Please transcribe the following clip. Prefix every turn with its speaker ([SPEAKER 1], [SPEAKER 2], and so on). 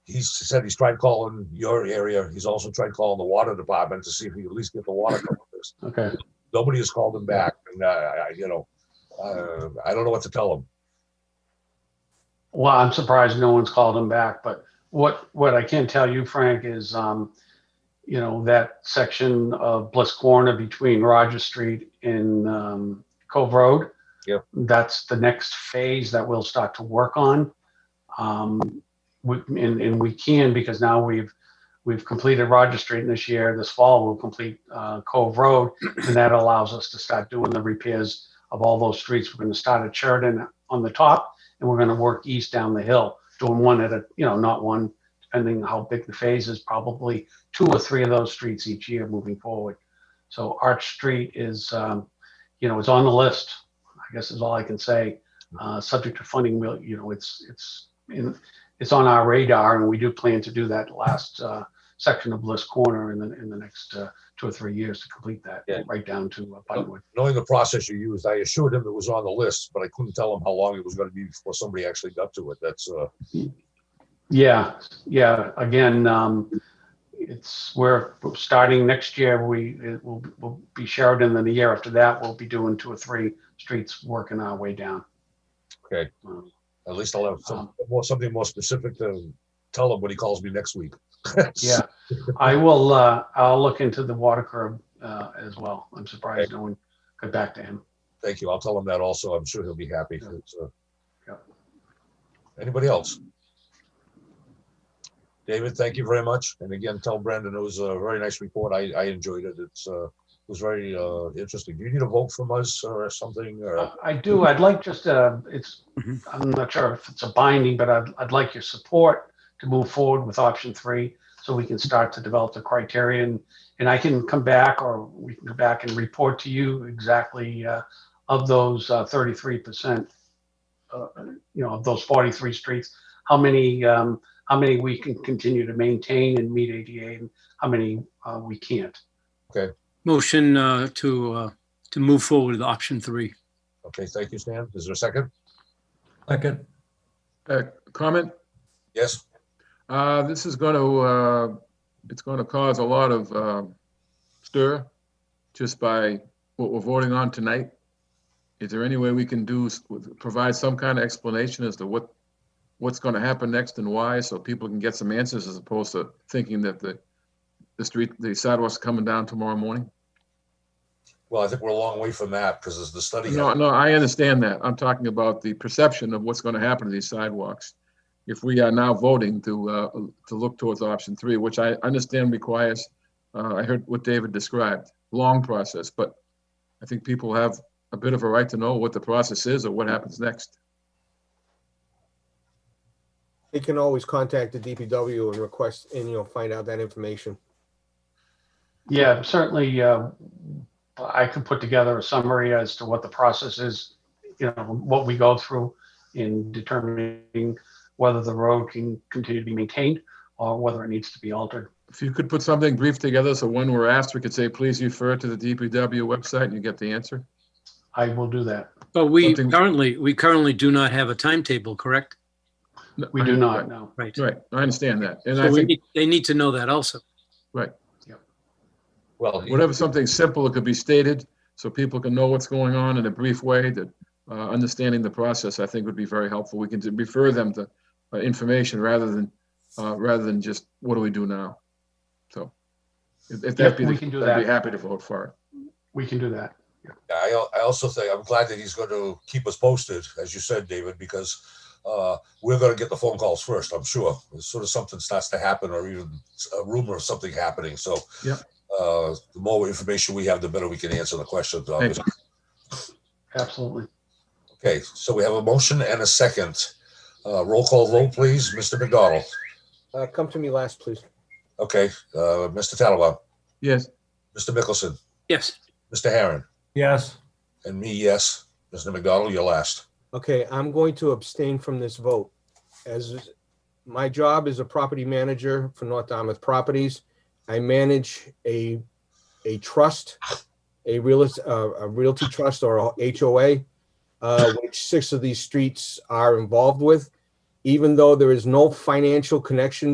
[SPEAKER 1] he said he's tried calling your area. He's also tried calling the water department to see if he could at least get the water covered.
[SPEAKER 2] Okay.
[SPEAKER 1] Nobody has called him back, and uh, I, you know, uh, I don't know what to tell him.
[SPEAKER 2] Well, I'm surprised no one's called him back, but what, what I can tell you, Frank, is, um, you know, that section of Bliss Corner between Roger Street and, um, Cove Road.
[SPEAKER 1] Yep.
[SPEAKER 2] That's the next phase that we'll start to work on. Um, we, and, and we can, because now we've, we've completed Roger Street this year. This fall, we'll complete, uh, Cove Road. And that allows us to start doing the repairs of all those streets. We're gonna start at Sheridan on the top and we're gonna work east down the hill, doing one at a, you know, not one, depending how big the phase is, probably two or three of those streets each year moving forward. So Arch Street is, um, you know, is on the list, I guess is all I can say. Uh, subject to funding, we'll, you know, it's, it's in, it's on our radar and we do plan to do that last, uh, section of Bliss Corner in the, in the next, uh, two or three years to complete that,
[SPEAKER 1] Yeah.
[SPEAKER 2] right down to uh, Buttonwood.
[SPEAKER 1] Knowing the process you used, I assured him it was on the list, but I couldn't tell him how long it was going to be before somebody actually got to it. That's uh,
[SPEAKER 2] Yeah, yeah. Again, um, it's, we're starting next year, we, it will, will be Sheridan, then the year after that, we'll be doing two or three streets, working our way down.
[SPEAKER 1] Okay.
[SPEAKER 2] Um,
[SPEAKER 1] at least I'll have some
[SPEAKER 2] Um.
[SPEAKER 1] more something more specific to tell him when he calls me next week.
[SPEAKER 2] Yeah, I will, uh, I'll look into the water curb, uh, as well. I'm surprised no one got back to him.
[SPEAKER 1] Thank you. I'll tell him that also. I'm sure he'll be happy.
[SPEAKER 2] Yeah.
[SPEAKER 1] It's, uh,
[SPEAKER 2] Yeah.
[SPEAKER 1] Anybody else? David, thank you very much. And again, tell Brandon it was a very nice report. I, I enjoyed it. It's, uh, it was very, uh, interesting. Do you need a vote from us or something? Or,
[SPEAKER 2] Uh, I do, I'd like just, uh, it's,
[SPEAKER 3] Mhm.
[SPEAKER 2] I'm not sure if it's a binding, but I'd, I'd like your support to move forward with option three, so we can start to develop the criterion. And I can come back, or we can go back and report to you exactly, uh, of those uh, thirty-three percent, uh, you know, of those forty-three streets, how many, um, how many we can continue to maintain and meet ADA, and how many, uh, we can't.
[SPEAKER 3] Motion uh, to, uh, to move forward with option three.
[SPEAKER 1] okay, thank you, Stan. Is there a second?
[SPEAKER 4] Second.
[SPEAKER 5] uh, comment.
[SPEAKER 1] Yes,
[SPEAKER 5] Uh, This is going to, uh it's going to cause a lot of uh, stir just by what we're voting on tonight. Is there any way we can do, s- with- provide some kind of explanation as to what, what's going to happen next and why, so people can get some answers as opposed to thinking that the, the street, the sidewalks coming down tomorrow morning?
[SPEAKER 1] well, I think we're a long way from that because there's the study.
[SPEAKER 5] No, no, I understand that. I'm talking about the perception of what's going to happen to these sidewalks. If we are now voting to, uh, to look towards option three, which I understand requires, uh, I heard what David described, long process, but I think people have a bit of a right to know what the process is or what happens next.
[SPEAKER 6] They can always contact the DPW and request, and you know, find out that information.
[SPEAKER 2] Yeah, certainly, uh, I could put together a summary as to what the process is, you know, what we go through in determining whether the road can continue to be maintained or whether it needs to be altered.
[SPEAKER 5] If you could put something brief together, so when we're asked, we could say, please refer to the DPW website and you get the answer.
[SPEAKER 2] I will do that.
[SPEAKER 3] But we
[SPEAKER 5] Something-
[SPEAKER 3] currently, we currently do not have a timetable, correct?
[SPEAKER 2] We do not, no.
[SPEAKER 3] Right. So
[SPEAKER 5] Right, I understand that. And I
[SPEAKER 3] we
[SPEAKER 5] think,
[SPEAKER 3] need- they need to know that also.
[SPEAKER 1] Well, he-
[SPEAKER 5] whatever, something simple, it could be stated, so people can know what's going on in a brief way, that uh, understanding the process, I think, would be very helpful. We can t- refer them to uh, information rather than, uh, rather than just, what do we do now? So if if
[SPEAKER 2] Yep,
[SPEAKER 5] that be,
[SPEAKER 2] we
[SPEAKER 5] the-
[SPEAKER 2] can do
[SPEAKER 5] I'd be
[SPEAKER 2] that.
[SPEAKER 5] happy to vote for it.
[SPEAKER 2] We can do that.
[SPEAKER 1] I, al- I also think, I'm glad that he's going to keep us posted, as you said, David, because uh, we're going to get the phone calls first, I'm sure, as soon as something starts to happen or even a rumor of something happening. So
[SPEAKER 5] Yep.
[SPEAKER 1] uh, the more information we have, the better we can answer the questions. obviously.
[SPEAKER 2] Absolutely.
[SPEAKER 1] Okay, so we have a motion and a second. Uh, Roll call vote, please. Mr. McDonald.
[SPEAKER 6] Uh, come to me last, please.
[SPEAKER 1] Okay, uh, Mr. Tattelbaum,
[SPEAKER 5] Yes,
[SPEAKER 1] Mr. Mickelson,
[SPEAKER 3] Yes,
[SPEAKER 1] Mr. Herron,
[SPEAKER 4] Yes,
[SPEAKER 1] and me, yes. Mr. McDonald, you're last.
[SPEAKER 6] Okay, I'm going to abstain from this vote. As my job is a property manager for North Dartmouth Properties. I manage a, a trust, a realist, uh, a realty trust or a HOA, uh, which six of these streets are involved with. Even though there is no financial connection